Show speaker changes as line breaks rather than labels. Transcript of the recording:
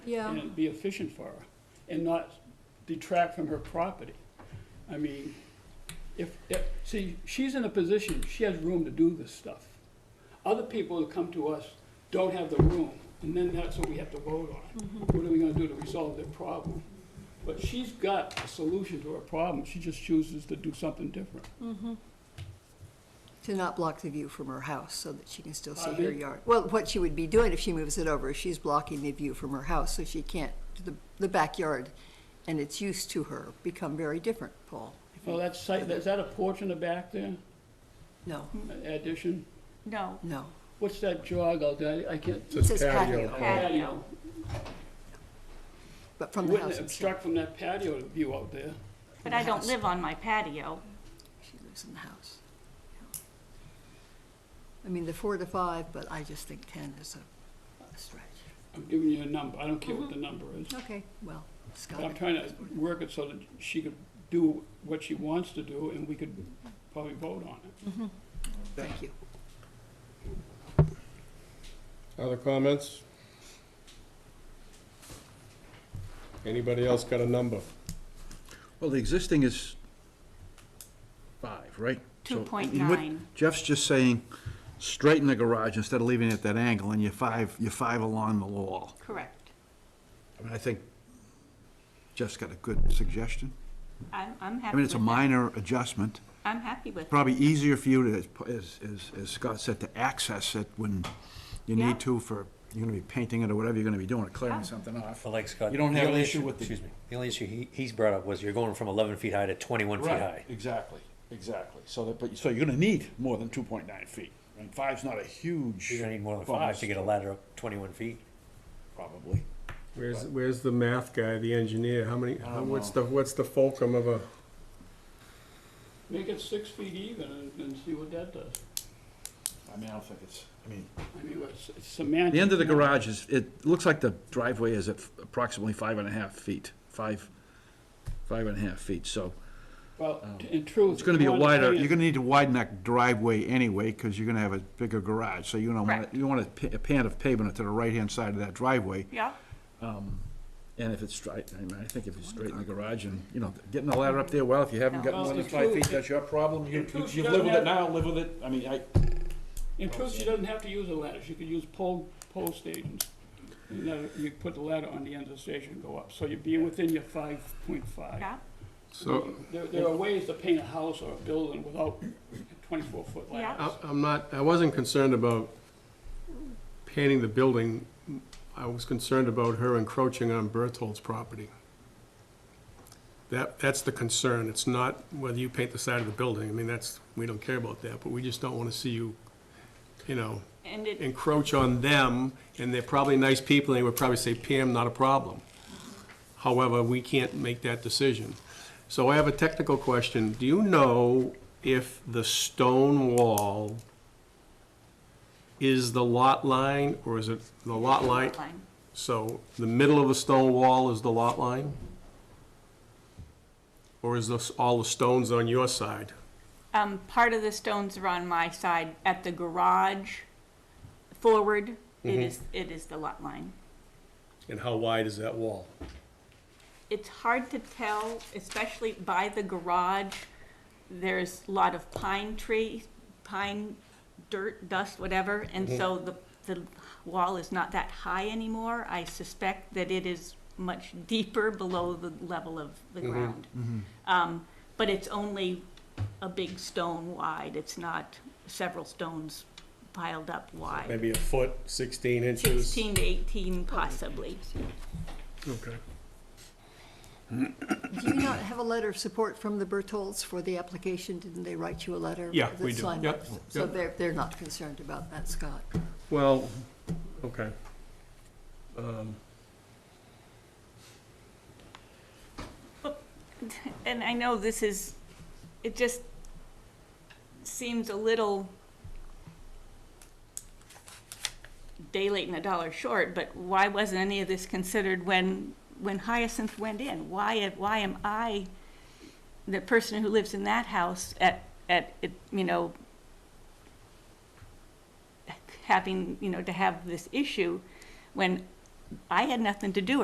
Yeah.
and be efficient for her and not detract from her property. I mean, if, if, see, she's in a position, she has room to do this stuff. Other people that come to us don't have the room, and then that's what we have to vote on. What are we gonna do to resolve their problem? But she's got a solution to her problem, she just chooses to do something different.
To not block the view from her house so that she can still see
Pardon
her
me?
yard. Well, what she would be doing if she moves it over, is she's blocking the view from her house, so she can't, the, the backyard and its use to her become very different, Paul.
Well, that's, site- is that a porch in the back there,
No,
addition?
No.
no.
What's that jog out there? I can't.
It says patio,
Patio.
but from the
Wouldn't
house
it
itself.
obstruct from that patio view out there?
But I don't
House.
live on my patio.
She lives in the house. I mean, the four to five, but I just think ten is a stretch.
I'm giving you a number, I don't care what the number is.
Okay, well,
But I'm
Scott,
trying to work it so that she could do what she wants to do, and we could probably vote on it.
thank you.
Other comments? Anybody else got a number?
Well, the existing is five, right? So,
Two point
and what-
nine.
Jeff's just saying, straighten the garage instead of leaving it at that angle, and you're five, you're five along the wall.
Correct.
I mean, I think Jeff's got a good suggestion.
I'm, I'm
I
happy
mean,
with
it's a
it.
minor adjustment,
I'm happy with it.
probably easier for you to, as- as, as Scott said, to access it when you
Yeah.
need to for, you're gonna be painting it or whatever you're gonna be doing, or clearing
Yeah.
something off.
But like Scott.
You don't
the
have an
only
issue with the-
Excuse me. The only issue he, he's brought up was you're going from eleven feet high to twenty-one feet high.
exactly, exactly. So that, but, so you're gonna need more than two point nine feet. And five's not a huge.
You're gonna need more than five to
bump,
get a ladder up twenty-one feet.
Probably.
Where's, where's the math guy, the engineer? How many,
Oh,
how- what's the, what's the fulcrum of a,
Make it six feet even and, and see what that does.
I mean, I don't think it's, I mean.
I mean, it's it's semantic.
The end of the
you know?
garage is, it looks like the driveway is at approximately five and a half feet, five, five and a half feet, so.
Well, t- in truth.
Oh. It's gonna be a
you
wider,
understand-
you're gonna need to widen that driveway anyway, cause you're gonna have a bigger garage, so you don't want,
Correct.
you want a pa- a pan of pavement to the right-hand side of that driveway.
Yeah,
And if it's straight, I mean, I think if it's straight in the garage and, you know, getting the ladder up there, well, if you haven't gotten
Well,
more than
if
five
you-
feet, that's your problem, you,
if you
you
shut
live with
that-
it now, live with it, I mean, I,
In truth, she doesn't have to use a ladder, she could use pole, pole stations. And then you put the ladder on the end of the station and go up, so you'd be within your five point five.
yeah,
so,
There, there are ways to paint a house or a building without twenty-four foot
Yeah.
ladders.
I- I'm not, I wasn't concerned about painting the building. I was concerned about her encroaching on Berthold's property. That, that's the concern. It's not whether you paint the side of the building. I mean, that's, we don't care about that, but we just don't want to see you, you know,
and it,
encroach on them, and they're probably nice people, and they would probably say, Pam, not a problem. However, we can't make that decision. So I have a technical question. Do you know if the stone wall is the lot line, or is it the lot line?
fine.
So the middle of the stone wall is the lot line? Or is this all the stones on your side?
Um, part of the stones are on my side at the garage forward.
Mm-hmm.
It is, it is the lot line.
And how wide is that wall?
It's hard to tell, especially by the garage. There's a lot of pine trees, pine, dirt, dust, whatever, and so the, the wall is not that high anymore. I suspect that it is much deeper below the level of the ground. Um, but it's only a big stone wide, it's not several stones piled up wide.
Maybe a foot, 16 inches?
Sixteen to eighteen possibly.
Okay.
Do you not have a letter of support from the Bertolds for the application? Didn't they write you a letter?
Yeah,
that's
we do.
signed
Yep,
up? So
yep.
they're, they're not concerned about that, Scott.
Well, okay. Um,
And I know this is, it just seems a little day late and a dollar short, but why wasn't any of this considered when, when Hyacinth went in? Why, why am I, the person who lives in that house at, at, it- you know, having, you know, to have this issue when I had nothing to do